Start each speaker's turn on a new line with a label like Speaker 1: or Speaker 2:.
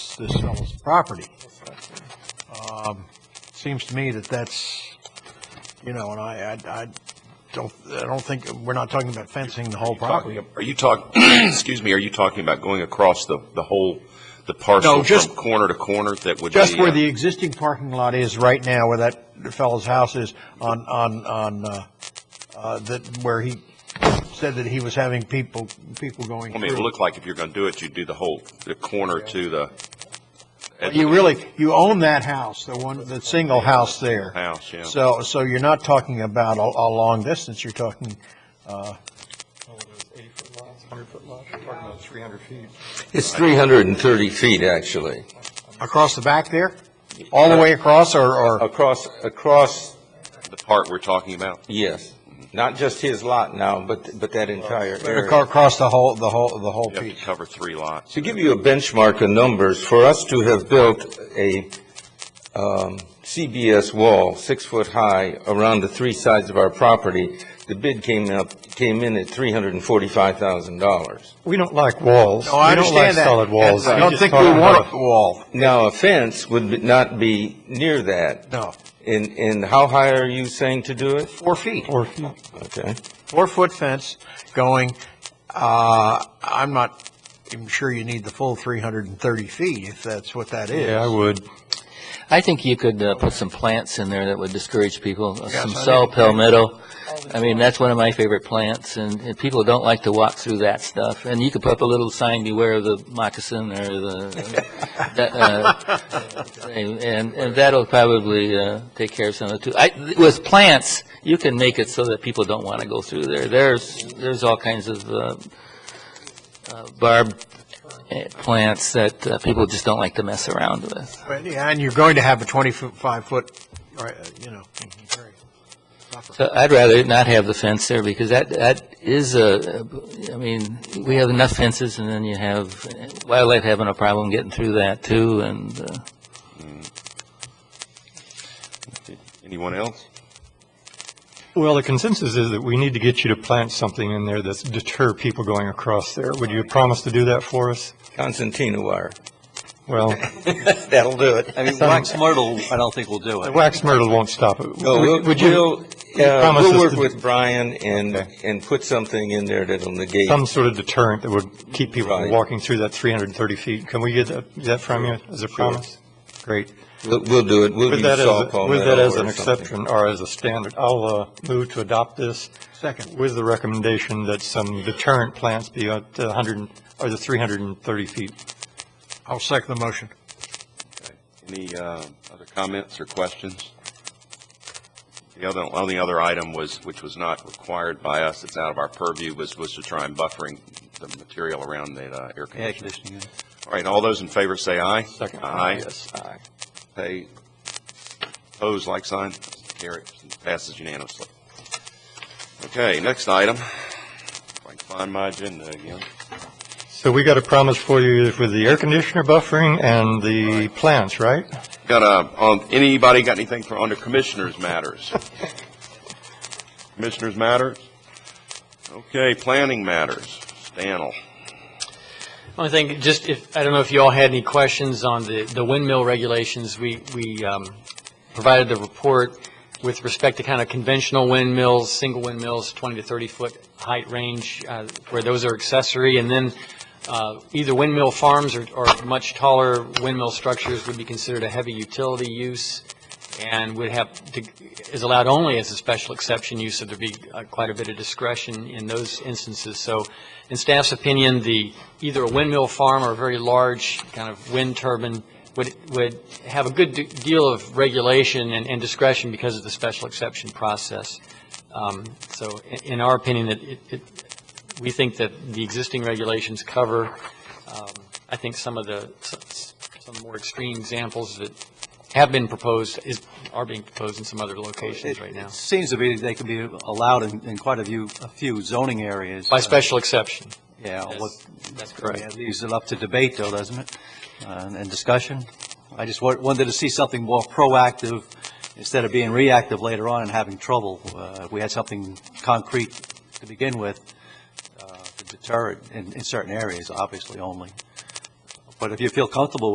Speaker 1: this, this fellow's property. Um, Seems to me that that's, you know, and I, I, I don't, I don't think, we're not talking about fencing the whole property.
Speaker 2: Are you talking, excuse me, are you talking about going across the, the whole, the parcel
Speaker 1: just-
Speaker 2: from corner to corner that would be?
Speaker 1: Just where
Speaker 2: uh,
Speaker 1: the existing parking lot is right now, where that fellow's house is on, on, on, uh, uh, that, where he said that he was having people, people going
Speaker 2: uh, I
Speaker 1: through.
Speaker 2: mean, it looked like if you're going to do it, you'd do the whole, the corner to the. at
Speaker 1: You
Speaker 2: the
Speaker 1: really, you own that house, the one, the single house there.
Speaker 2: House, yeah.
Speaker 1: So, so you're not talking about a, a long distance, you're talking,
Speaker 3: It's 330 feet, actually,
Speaker 1: across the back there? All the way across, or, or,
Speaker 3: across, across,
Speaker 2: The part we're talking about?
Speaker 3: yes, not just his lot now, but, but that entire
Speaker 1: aco-
Speaker 3: area.
Speaker 1: across the whole, the whole, the whole
Speaker 2: You have to
Speaker 1: piece?
Speaker 2: cover three lots.
Speaker 3: To give you a benchmark of numbers, for us to have built a um, CBS wall, six foot high, around the three sides of our property, the bid came up, came in at $345,000.
Speaker 4: We don't like walls.
Speaker 1: No, I
Speaker 4: We don't like
Speaker 1: understand that.
Speaker 4: solid walls.
Speaker 1: I don't
Speaker 4: just
Speaker 1: think we
Speaker 4: talk about-
Speaker 1: want a wall,
Speaker 3: Now, a fence would be- not be near that.
Speaker 1: no.
Speaker 3: And, and how high are you saying to do it?
Speaker 1: Four feet,
Speaker 4: Or,
Speaker 3: Okay.
Speaker 1: four-foot fence going, uh, I'm not even sure you need the full 330 feet, if that's what that is.
Speaker 4: yeah, I would.
Speaker 5: I think you could uh, put some plants in there that would discourage people, uh,
Speaker 1: Yes,
Speaker 5: some
Speaker 1: I
Speaker 5: saw
Speaker 1: do.
Speaker 5: palmetto. I mean, that's one of my favorite plants, and and people don't like to walk through that stuff. And you could put up a little sign, beware of the moccasin or the, that, uh, and and that'll probably uh, take care of some of it, too. I- With plants, you can make it so that people don't want to go through there. There's, there's all kinds of uh, uh, barbed uh, plants that uh, people just don't like to mess around with.
Speaker 1: But, yeah, And you're going to have a 25-foot, uh, you know, area.
Speaker 5: So I'd rather not have the fence there, because that, that is a, I mean, we have enough fences, and then you have wildlife having a problem getting through that, too, and, uh,
Speaker 2: Anyone else?
Speaker 4: Well, the consensus is that we need to get you to plant something in there that's deter people going across there. Would you promise to do that for us?
Speaker 3: Constantina wire.
Speaker 4: Well,
Speaker 3: That'll do it. I mean,
Speaker 6: Wax Myrtle, I don't think will do
Speaker 4: the
Speaker 6: it.
Speaker 4: wax myrtle won't stop it.
Speaker 3: No, we'll,
Speaker 4: Would- Would you,
Speaker 3: we'll, uh,
Speaker 4: promise
Speaker 3: we'll
Speaker 4: us
Speaker 3: work
Speaker 4: to-
Speaker 3: with Brian and, and put something in there that'll negate.
Speaker 4: some sort of deterrent that would keep people from
Speaker 3: Right.
Speaker 4: walking through that 330 feet? Can we get that, that from you as a promise? Great.
Speaker 3: We'll, we'll do it. We'll
Speaker 4: With
Speaker 3: use
Speaker 4: that
Speaker 3: saw
Speaker 4: as, with that
Speaker 3: palmetto
Speaker 4: as an
Speaker 3: or something.
Speaker 4: exception or as a standard, I'll uh, move to adopt this
Speaker 1: Second.
Speaker 4: with the recommendation that some deterrent plants be at the 100, and- or the 330 feet.
Speaker 1: I'll second the motion.
Speaker 2: Any uh, other comments or questions? The other, only other item was, which was not required by us, it's out of our purview, was, was to try and buffering the material around the uh, air conditioning.
Speaker 6: Air conditioning. yeah.
Speaker 2: All right, all those in favor say aye.
Speaker 4: Second.
Speaker 2: Aye.
Speaker 3: Yes, aye.
Speaker 2: Pay, pose like sign, carry, passes unanimously. Okay, next item. If I can find my agenda again.
Speaker 4: So we got a promise for you with the air conditioner buffering and the plants, right?
Speaker 2: Got a, on, anybody got anything for, under commissioners' matters? Commissioners' matters? Okay, planning matters. Stanel.
Speaker 7: Only thing, just if, I don't know if you all had any questions on the, the windmill regulations. We, we um, provided the report with respect to kind of conventional windmills, single windmills, 20 to 30 foot height range, uh, where those are accessory. And then uh, either windmill farms or, or much taller windmill structures would be considered a heavy utility use and would have, to is allowed only as a special exception use, so there'd be uh, quite a bit of discretion in those instances. So in staff's opinion, the, either a windmill farm or a very large kind of wind turbine would, would have a good de- deal of regulation and and discretion because of the special exception process. Um, So i- in our opinion, that it, it- we think that the existing regulations cover, um, I think, some of the, s- some more extreme examples that have been proposed, is, are being proposed in some other locations right now,
Speaker 6: It Seems to be they could be allowed in, in quite a few, a few zoning areas.
Speaker 7: by special exception.
Speaker 6: Yeah, what,
Speaker 7: That's
Speaker 6: yeah, leaves it up to debate though, doesn't it? Uh, And discussion. I just wa- wanted to see something more proactive instead of being reactive later on and having trouble. Uh, If we had something concrete to begin with, uh, to deter it in, in certain areas, obviously only. But if you feel comfortable